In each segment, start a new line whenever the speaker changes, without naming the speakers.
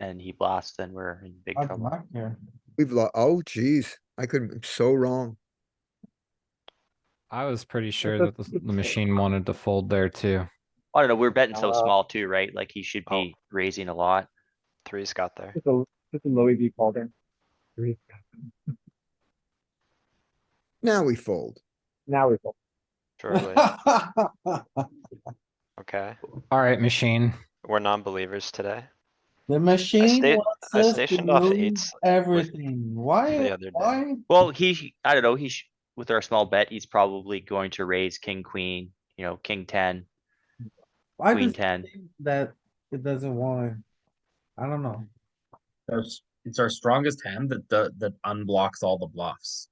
and he blasts, then we're in big
Hard
trouble.
luck here.
We've lost, oh geez, I could, I'm so wrong.
I was pretty sure that the, the machine wanted to fold there too.
I don't know, we're betting so
Uh,
small too, right? Like he should
oh.
be raising a lot.
Three's got there.
It's a, it's a low EV call there.
Now we fold.
Now we fold.
Surely. Okay.
Alright, machine.
We're non-believers today.
The machine
sta-
wants
I
us to
stationed off
move
eights
everything.
the
Why,
other day.
why?
Well, he, sh- I don't know, he, sh- with our small bet, he's probably going to raise king, queen, you know, king ten,
I
queen
just
ten.
think that it doesn't wanna, I don't know.
That's, it's our strongest hand that, that, that unblocks all the bluffs,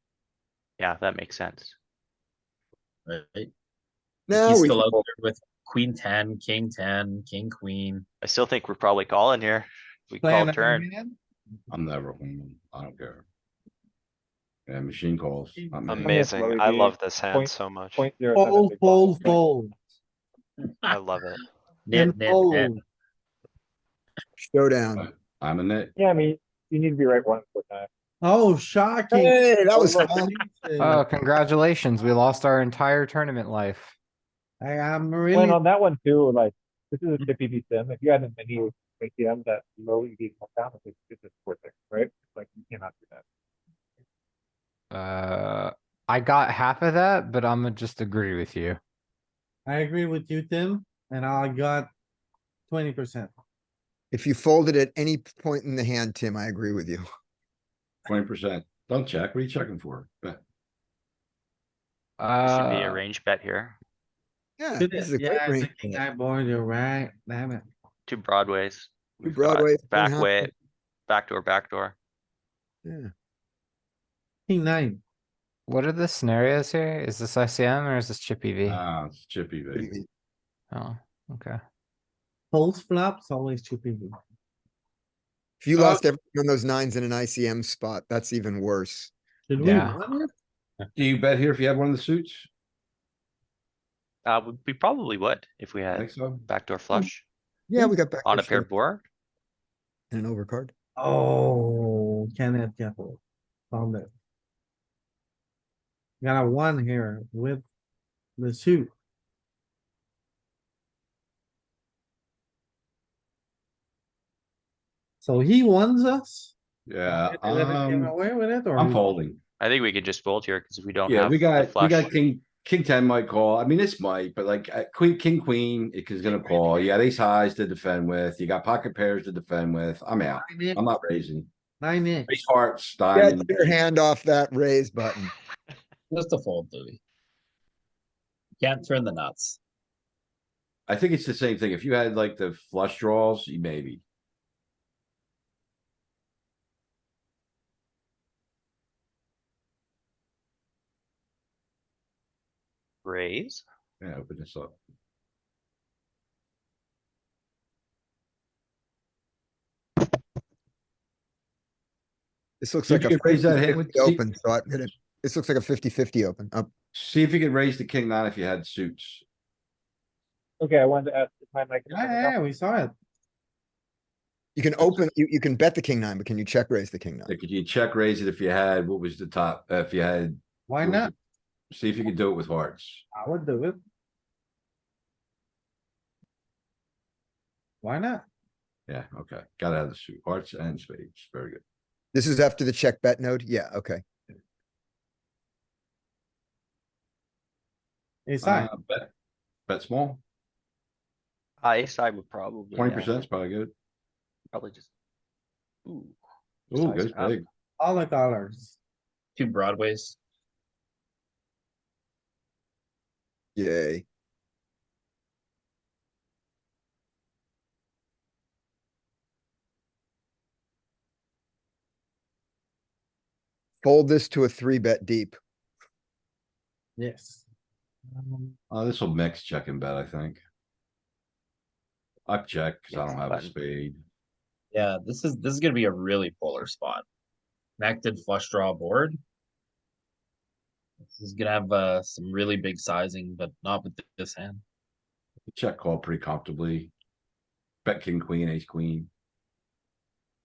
Yeah, that makes sense.
right? He's
Now we,
still out there with queen ten, king ten, king queen.
I still think we're probably calling here. We
Playing
call turn.
hand,
I'm never winning. I don't care. Yeah, machine calls. I'm in.
Amazing. I
be
love this hand
point-
so much.
Point zero seven
Fold,
big blind.
fold, fold.
I love it.
Nip,
and
nip, nip.
fold.
showdown.
I'm in it.
Yeah, I mean, you need to be right one foot nine.
Oh, shocking.
Hey, that was,
Overthinking.
fun.
Oh, congratulations. We lost our entire tournament life.
I am
And
really,
on that one too, like, this is a chippy V sim. If you had as many ATMs that low EV come down, it's just a sport thing, right? Like, you cannot do that.
Uh, I got half of that, but I'm gonna just agree with you.
I agree with you, Tim, and I got twenty percent.
if you folded at any point in the hand, Tim, I agree with you.
Twenty percent. Don't check. What are you checking for? Bet.
There Should be
Uh,
a range bet here.
Yeah,
Yeah,
this is a great
it's a
ring.
king eye board, you're right, damn it.
Two broadways. We've got
Broadway.
Back way, backdoor, backdoor.
Yeah.
King nine,
what are the scenarios here? Is this ICM or is this chippy
Mm.
V?
Uh,
Ah, it's chippy,
Mm-hmm.
baby.
Oh, okay.
post flops, always two people.
If you
Uh,
lost every one of those nines in an ICM spot, that's even worse.
Should we
Yeah.
run it?
Do you bet here if you have one of the suits?
Uh, we- we probably would if we
I
had
think so.
backdoor
Hmm.
flush
Hmm.
Yeah, we got back.
on a paired board.
And an overcard.
Oh, Kenneth Keppel, found it. Got a one here with the suit. So he wants us?
Yeah,
Did they let him
um,
Away with it or?
I'm
he-
folding.
I think we could just fold here because we don't
Yeah,
have
we
the
got, we got
flush.
king, king ten might call. I mean, this might, but like uh, queen, king, queen, it is gonna call. You got ace highs to defend with. You got pocket pairs to defend with. I'm out.
Nine X,
I'm not raising.
Nine X.
Ace hearts,
Yeah,
diamond.
take your hand off that raise button.
Just a fold, Louis. Can't turn the nuts.
I think it's the same thing. If you had like the flush draws, you maybe.
Raise.
Yeah, open this up.
This looks
You
like a
could raise that hand
50-50
with-
Open, so I, this looks like a 50-50 open, up.
See if you could raise the king nine if you had suits.
Okay, I wanted to ask if my mic. is
Yeah,
coming
yeah,
up.
yeah, we saw it.
You can open, you, you can bet the king nine, but can you check raise the king nine?
Like, could you check raise it if you had, what was the top, uh, if you had?
Why
what was
not?
it? See if you could do it with hearts.
I would do it. Why not?
Yeah, okay. Gotta have the suit, hearts and spades. Very good.
This is after the check bet node? Yeah, okay.
It's
Uh,
like,
bet, bet small,
I side would probably.
twenty
yeah,
percent is probably good.
Probably just. Ooh.
Ooh,
Size
goes
up.
big.
all the colors.
Two broadways.
Yay. Fold this to a three bet deep.
Yes.
Uh, this will mix check and bet, I think. I've checked, cause I
Yes,
don't have a
button.
spade.
Yeah, this is, this is gonna be a really polar spot. Connected flush draw board. This is gonna have, uh, some really big sizing, but not with this hand.
Check call pretty comfortably. Bet king, queen, ace, queen.